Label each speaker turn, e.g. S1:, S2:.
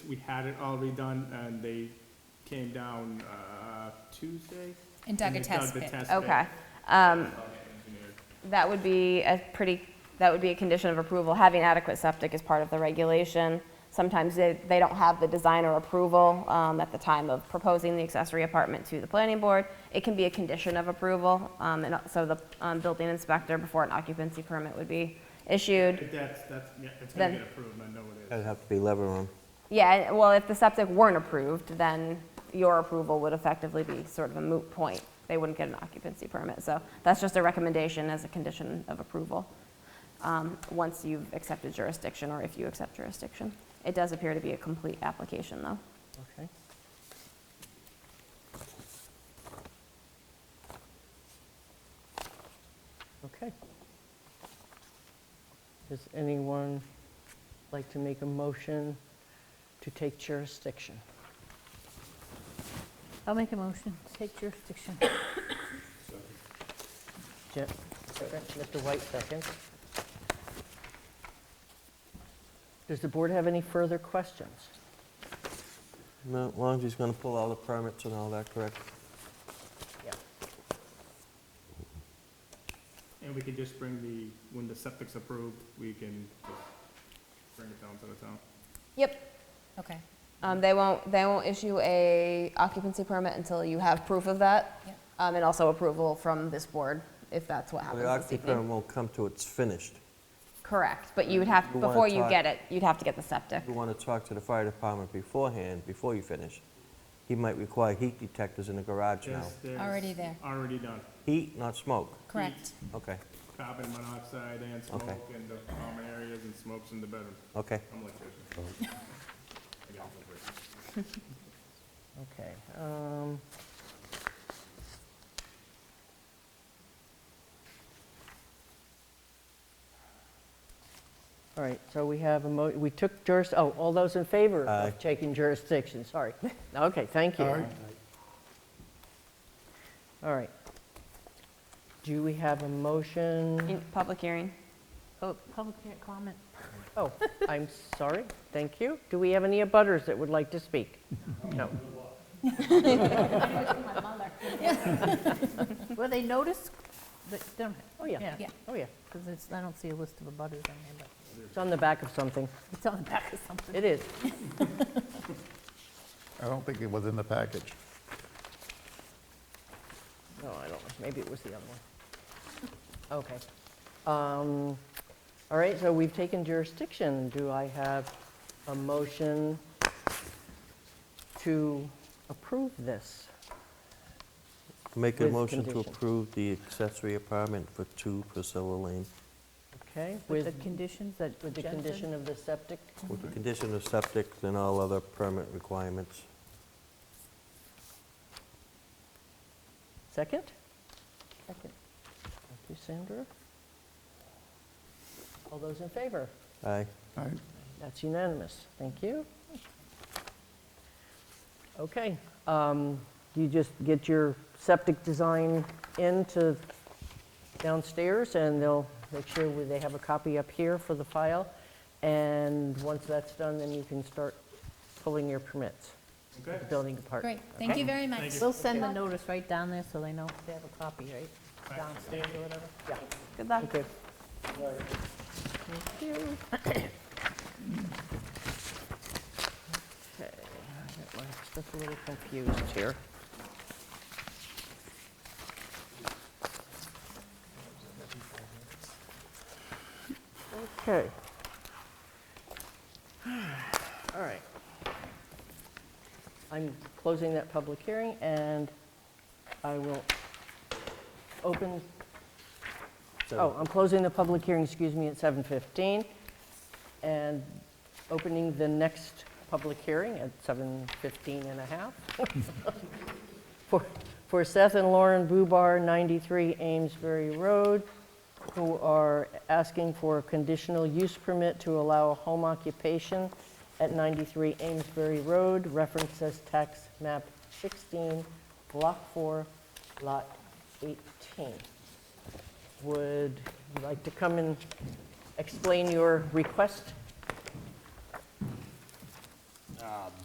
S1: we had it already done, and they came down, uh, Tuesday?
S2: And dug
S1: they
S2: a test
S1: the
S2: pit.
S1: test
S3: Okay.
S1: pit. Engineered.
S3: That would be a pretty, that would be a condition of approval. Having adequate septic is part of the regulation. Sometimes they, they don't have the designer approval um, at the time of proposing the accessory apartment to the planning board. It can be a condition of approval, um, and so the um, building inspector, before an occupancy permit would be issued.
S1: If That's, that's, yeah, it's gonna
S3: Then-
S1: get approved, I know it
S4: That'd
S1: is.
S4: have to be lever room.
S3: Yeah, and- well, if the septic weren't approved, then your approval would effectively be sort of a moot point. They wouldn't get an occupancy permit, so that's just a recommendation as a condition of approval, um, once you've accepted jurisdiction, or if you accept jurisdiction. It does appear to be a complete application, though.
S4: Okay.
S5: Okay. Does anyone like to make a motion to take jurisdiction?
S6: I'll make a motion, take jurisdiction.
S5: Je- Mr. White, second. Does the board have any further questions?
S4: No, as long as he's gonna pull all the permits and all that, correct?
S5: Yeah.
S1: And we can just bring the, when the septic's approved, we can just bring it down to the town.
S3: Yep.
S2: Okay,
S3: Um, They won't, they won't issue a occupancy permit until you have proof of that,
S2: Yep.
S3: um, and also approval from this board, if that's what
S4: The
S3: happens this
S4: occupancy
S3: evening.
S4: permit won't come till it's finished.
S3: Correct, but you would have,
S4: You wanna
S3: before you
S4: talk-
S3: get it, you'd have to get the septic.
S4: You wanna talk to the fire department beforehand, before you finish. He might require heat detectors in the garage now.
S1: There's- there's
S2: Already there.
S1: Already done.
S4: Heat, not smoke.
S2: correct.
S4: Okay,
S1: Carbon monoxide and
S4: Okay.
S1: smoke in the common areas and smokes in the bedroom.
S4: okay.
S1: I'm an electrician.
S4: Oh.
S1: I got it for free.
S5: Okay. um, All right, so we have a mo, we took juris, oh, all those in favor
S4: Aye.
S5: of taking jurisdiction, sorry. Okay, thank you. All right. Do we have a motion?
S3: In- Public hearing.
S6: Oh, public comment.
S5: Oh, I'm sorry, thank you. Do we have any abutters that would like to speak? No.
S6: Were they noticed? They don't,
S5: Oh, yeah.
S2: Yeah.
S5: Oh, yeah.
S6: because it's, I don't see a list of abutters on there, but
S5: It's on the back of something.
S6: it's on the back of something.
S5: It is.
S7: I don't think it was in the package.
S5: No, I don't know, maybe it was the other one. Okay. Um, All right, so we've taken jurisdiction. Do I have a motion to approve this?
S4: Make a
S5: With
S4: motion to
S5: conditions.
S4: approve the accessory apartment for 2 Priscilla Lane
S5: Okay,
S6: With
S5: with,
S6: the conditions that
S5: with the
S6: Jen said?
S5: condition of the septic?
S4: with the
S5: Mhm.
S4: condition of septic and all other permit requirements.
S5: Second?
S6: Second.
S5: Thank you, Sandra. All those in favor?
S4: Aye.
S7: I
S5: That's unanimous. Thank you. Okay, um, you just get your septic design into downstairs, and they'll make sure we- they have a copy up here for the file. And once that's done, then you can start pulling your permits,
S1: Okay.
S5: the building department.
S2: Great, thank you
S5: Okay?
S2: very much.
S6: We'll send the notice right down there so they know they have a copy, right? Downstairs or whatever.
S3: Good luck.
S5: Thank you. Okay, I got my- just a little confused here. Okay. All right. I'm closing that public hearing, and I will open Oh, I'm closing the public hearing, excuse me, at 7:15, and opening the next public hearing at 7:15 and a half. For- For Seth and Lauren Bubar, 93 Amesbury Road, who are asking for a conditional use permit to allow a home occupation at 93 Amesbury Road, references tax map 16, block 4, lot 18 would you like to come and explain your request?
S8: Uh,